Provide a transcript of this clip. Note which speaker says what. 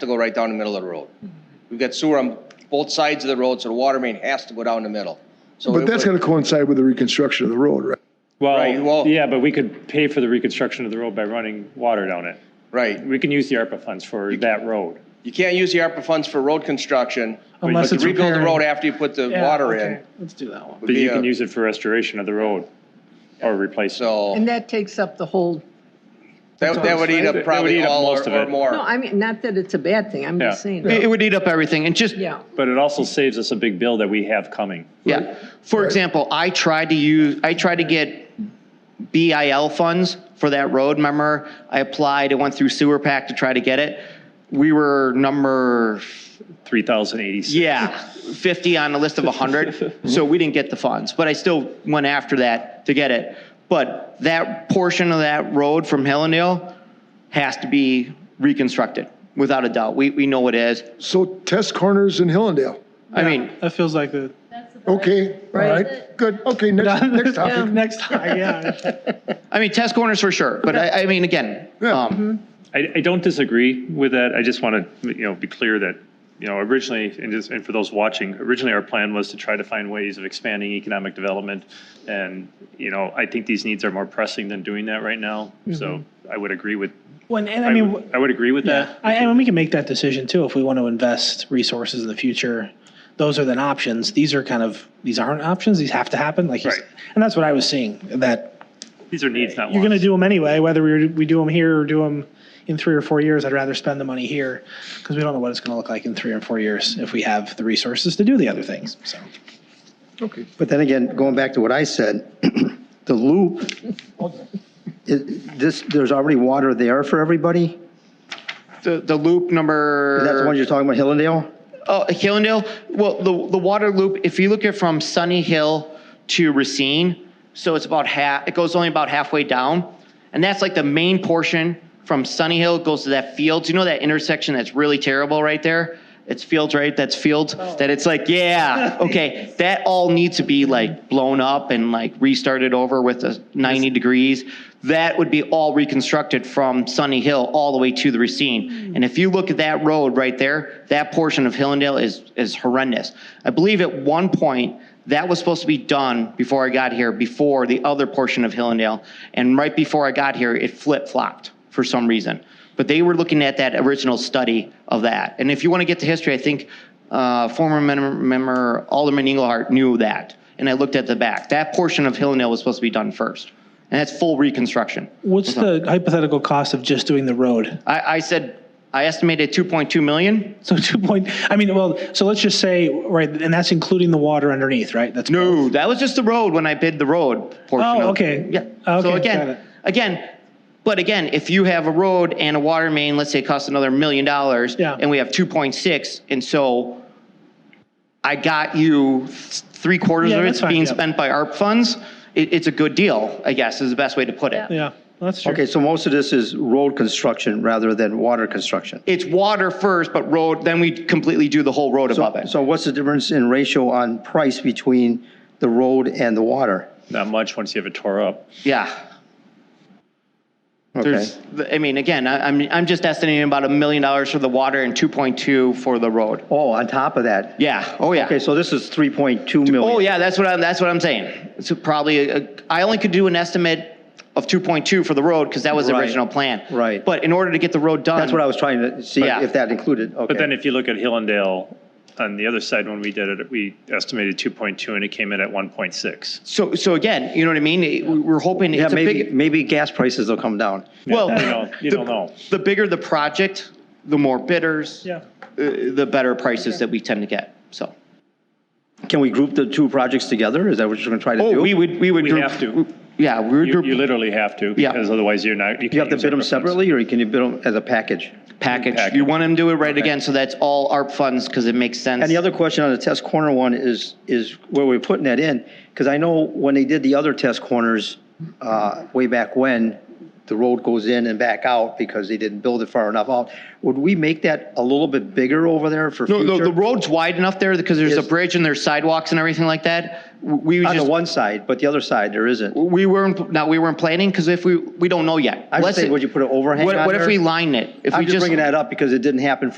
Speaker 1: to go right down the middle of the road. We've got sewer on both sides of the road, so the water main has to go down the middle. So
Speaker 2: But
Speaker 1: it
Speaker 2: that's
Speaker 1: would-
Speaker 2: going to coincide with the reconstruction of the road, right?
Speaker 1: Right, well-
Speaker 3: Well, yeah, but we could pay for the reconstruction of the road by running water down it.
Speaker 1: Right.
Speaker 3: We can use the ARPA funds for that road.
Speaker 1: You can't use the ARPA funds for road construction. but
Speaker 4: Unless
Speaker 1: to
Speaker 4: it's
Speaker 1: Rebuild the
Speaker 4: repairing.
Speaker 1: road after you put the
Speaker 4: Yeah,
Speaker 1: water
Speaker 4: okay,
Speaker 1: in.
Speaker 4: Let's do that one.
Speaker 1: would
Speaker 3: But
Speaker 1: be
Speaker 3: you
Speaker 1: a-
Speaker 3: can use it for restoration of the road or replace it.
Speaker 1: So
Speaker 5: And that takes up the whole,
Speaker 1: that, that would eat up
Speaker 3: That would
Speaker 1: probably
Speaker 3: eat up
Speaker 1: all
Speaker 3: most
Speaker 1: or
Speaker 3: of
Speaker 1: or
Speaker 3: it.
Speaker 5: no,
Speaker 1: more.
Speaker 5: I mean, not that it's a bad thing, I'm just
Speaker 3: Yeah.
Speaker 5: saying,
Speaker 4: Yeah.
Speaker 6: It would eat up everything, and just,
Speaker 5: yeah.
Speaker 3: But it also saves us a big bill that we have coming.
Speaker 6: yeah. For example, I tried to use, I tried to get BIL funds for that road, remember? I applied, it went through sewer pack to try to get it. We were number,
Speaker 3: Three thousand eighty-six.
Speaker 6: yeah, 50 on the list of 100, so we didn't get the funds. But I still went after that to get it. But that portion of that road from Hellendale has to be reconstructed, without a doubt. We, we know it is.
Speaker 2: So test corners in Hillendale.
Speaker 6: I mean,
Speaker 4: That feels like the,
Speaker 2: Okay, all right,
Speaker 5: Right.
Speaker 2: good. Okay, next, next topic.
Speaker 4: next time, yeah.
Speaker 6: I mean, test corners for sure, but I, I mean, again,
Speaker 2: Yeah.
Speaker 6: um,
Speaker 3: I, I don't disagree with that. I just want to, you know, be clear that, you know, originally, and just, and for those watching, originally our plan was to try to find ways of expanding economic development. And, you know, I think these needs are more pressing than doing that right now. So
Speaker 1: Mm-hmm.
Speaker 3: I would agree with,
Speaker 4: When, and
Speaker 3: I
Speaker 4: I mean.
Speaker 3: would, I would agree with that.
Speaker 4: I, I mean, we can make that decision too if we want to invest resources in the future. Those are then options. These are kind of these aren't options. These have to happen. Like, you s-
Speaker 3: Right.
Speaker 4: and that's what I was seeing. That
Speaker 3: These are needs, not wants.
Speaker 4: you're going to do them anyway, whether we we do them here or do them in three or four years. I'd rather spend the money here because we don't know what it's going to look like in three or four years if we have the resources to do the other things. So
Speaker 7: But then again, going back to what I said, the loop, it- this, there's already water there for everybody?
Speaker 6: the, the loop number.
Speaker 7: That's the one you're talking about, Hillendale?
Speaker 6: Oh, Hillendale, well, the, the water loop, if you look at from Sunny Hill to Racine, so it's about half, it goes only about halfway down. And that's like the main portion from Sunny Hill goes to that fields. You know that intersection that's really terrible right there? It's fields, right? That's fields, that it's like, yeah, okay. That all needs to be like blown up and like restarted over with a 90 degrees. That would be all reconstructed from Sunny Hill all the way to the Racine. And if you look at that road right there, that portion of Hillendale is, is horrendous. I believe at one point, that was supposed to be done before I got here, before the other portion of Hillendale. And right before I got here, it flip-flopped for some reason. But they were looking at that original study of that. And if you want to get to history, I think uh, former mem- member Alderman Engelhardt knew that. And I looked at the back. That portion of Hillendale was supposed to be done first. And that's full reconstruction.
Speaker 4: what's
Speaker 3: Mm-hmm.
Speaker 4: the hypothetical cost of just doing the road?
Speaker 6: I, I said, I estimated 2.2 million.
Speaker 4: So two point. I mean, well, so let's just say right, and that's including the water underneath, right? That's
Speaker 6: No, that was just the road when I bid the road portion.
Speaker 4: Oh,
Speaker 6: of-
Speaker 4: okay.
Speaker 6: Yeah.
Speaker 4: Okay,
Speaker 6: So
Speaker 4: got it.
Speaker 6: again, again, but again, if you have a road and a water main, let's say it costs another million dollars.
Speaker 4: Yeah.
Speaker 6: And we have two point six, and so I got you three quarters
Speaker 4: Yeah,
Speaker 6: of
Speaker 4: that's
Speaker 6: it's
Speaker 4: fine,
Speaker 6: being
Speaker 4: yeah.
Speaker 6: spent by ARP funds. It, it's a good deal, I guess, is the best way to put it.
Speaker 4: Yeah, well, that's true.
Speaker 7: Okay, so most of this is road construction rather than water construction.
Speaker 6: It's water first, but road, then we completely do the whole road above it.
Speaker 7: So what's the difference in ratio on price between the road and the water?
Speaker 3: Not much once you have it tore up.
Speaker 6: Yeah.
Speaker 7: Okay,
Speaker 6: There's, I mean, again, I, I'm, I'm just estimating about a million dollars for the water and two point two for the road.
Speaker 7: oh, on top of that?
Speaker 6: Yeah. Oh, yeah.
Speaker 7: Okay, so this is 3.2 million.
Speaker 6: Oh, yeah. That's what I'm. That's what I'm saying. So probably, a- I only could do an estimate of 2.2 for the road because that was the
Speaker 7: Right.
Speaker 6: original plan.
Speaker 7: Right.
Speaker 6: But in order to get the road done,
Speaker 7: That's what I was trying to see,
Speaker 6: Yeah.
Speaker 7: if that included, okay.
Speaker 3: But then if you look at Hillendale, on the other side, when we did it, we estimated two point two and it came in at one point six.
Speaker 6: So, so again, you know what I mean? It- we- We're hoping
Speaker 7: Yeah,
Speaker 6: it's a
Speaker 7: maybe,
Speaker 6: big.
Speaker 7: maybe gas prices will come down.
Speaker 6: Well,
Speaker 3: You know, you
Speaker 6: the-
Speaker 3: don't know.
Speaker 6: The bigger the project, the more bidders.
Speaker 4: Yeah.
Speaker 6: uh, The better prices that we tend to get. So.
Speaker 7: Can we group the two projects together? Is that what you're going to try to do?
Speaker 6: Oh, we would. We would.
Speaker 3: We
Speaker 6: group-
Speaker 3: have to.
Speaker 6: Yeah, we would
Speaker 3: You,
Speaker 6: group
Speaker 3: you literally have to,
Speaker 6: Yeah.
Speaker 3: because otherwise you're not.
Speaker 7: You have to bid them separately, or can you bid them as a package?
Speaker 6: package.
Speaker 3: package.
Speaker 6: You want them to do it right again, so that's all ARP funds because it makes sense.
Speaker 7: And the other question on the test corner one is, is where we're putting that in, because I know when they did the other test corners, uh, way back when, the road goes in and back out because they didn't build it far enough out. Would we make that a little bit bigger over there for
Speaker 6: No,
Speaker 7: future?
Speaker 6: no, the road's wide enough there because there's a
Speaker 7: Yes.
Speaker 6: bridge and there's sidewalks and everything like that. We would
Speaker 7: On the
Speaker 6: just,
Speaker 7: one side, but the other side, there isn't.
Speaker 6: we weren't, now we weren't planning because if we, we don't know yet.
Speaker 7: I
Speaker 6: Let's-
Speaker 7: just think, would you put an overhang
Speaker 6: What,
Speaker 7: on
Speaker 6: what if
Speaker 7: there?
Speaker 6: we line it? If we
Speaker 7: I'm just bringing that up because it didn't happen